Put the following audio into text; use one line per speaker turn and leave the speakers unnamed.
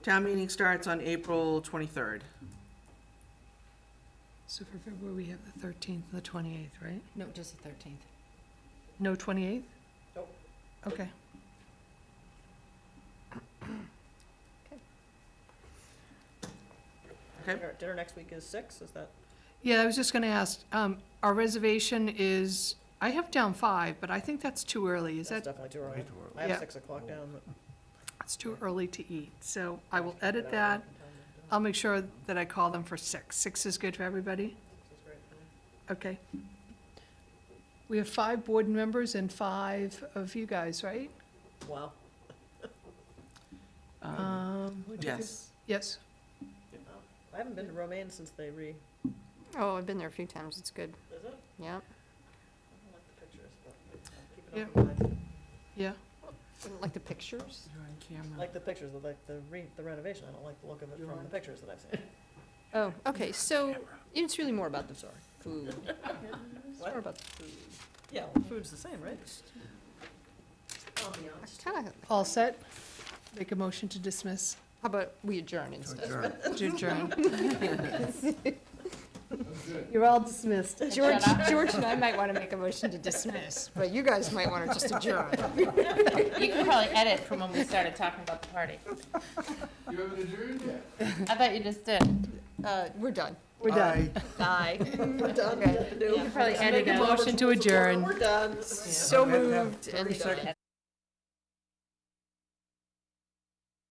Town meeting starts on April twenty-third.
So for February, we have the 13th and the 28th, right?
No, just the thirteenth.
No 28th?
Nope.
Okay.
Okay.
Our Dinner next week is six, is that?
Yeah, I was just gonna ask, um, our reservation is, I have down five, but I think that's too early. Is
That's
that,
definitely too early. I
Yeah.
have six o'clock down.
it's too early to eat, so I will edit that. I'll make sure that I call them for six. Six is good for everybody? Okay. We have five board members and five of you guys, right?
Wow.
Um, would you do-
Yes.
Yes.
I haven't been to Romaine since they re, is
Oh, I've been there a few times, it's good,
it? I don't
yeah.
like the pictures, but
Yeah.
I'll keep it up. in mind.
Yeah,
Didn't Like the pictures?
Like the pictures, like the re, the renovation, I don't like the look of it from the pictures that I've seen.
Oh, okay, so it's really more about the food. It's
What?
more about the food.
Yeah, well, food's the same, right?
I kinda-
all set? Make a motion to dismiss,
How about we adjourn instead?
to adjourn. You're all dismissed.
George, George and I might wanna make a motion to dismiss, but you guys might wanna just adjourn.
You can probably edit from when we started talking about the party.
You haven't adjourned yet?
I thought you just did.
Uh, we're done.
We're done.
Bye.
We're done,
Okay.
we have to do.
You can probably edit
Make a
out.
motion to adjourn.
We're done.
So moved and done.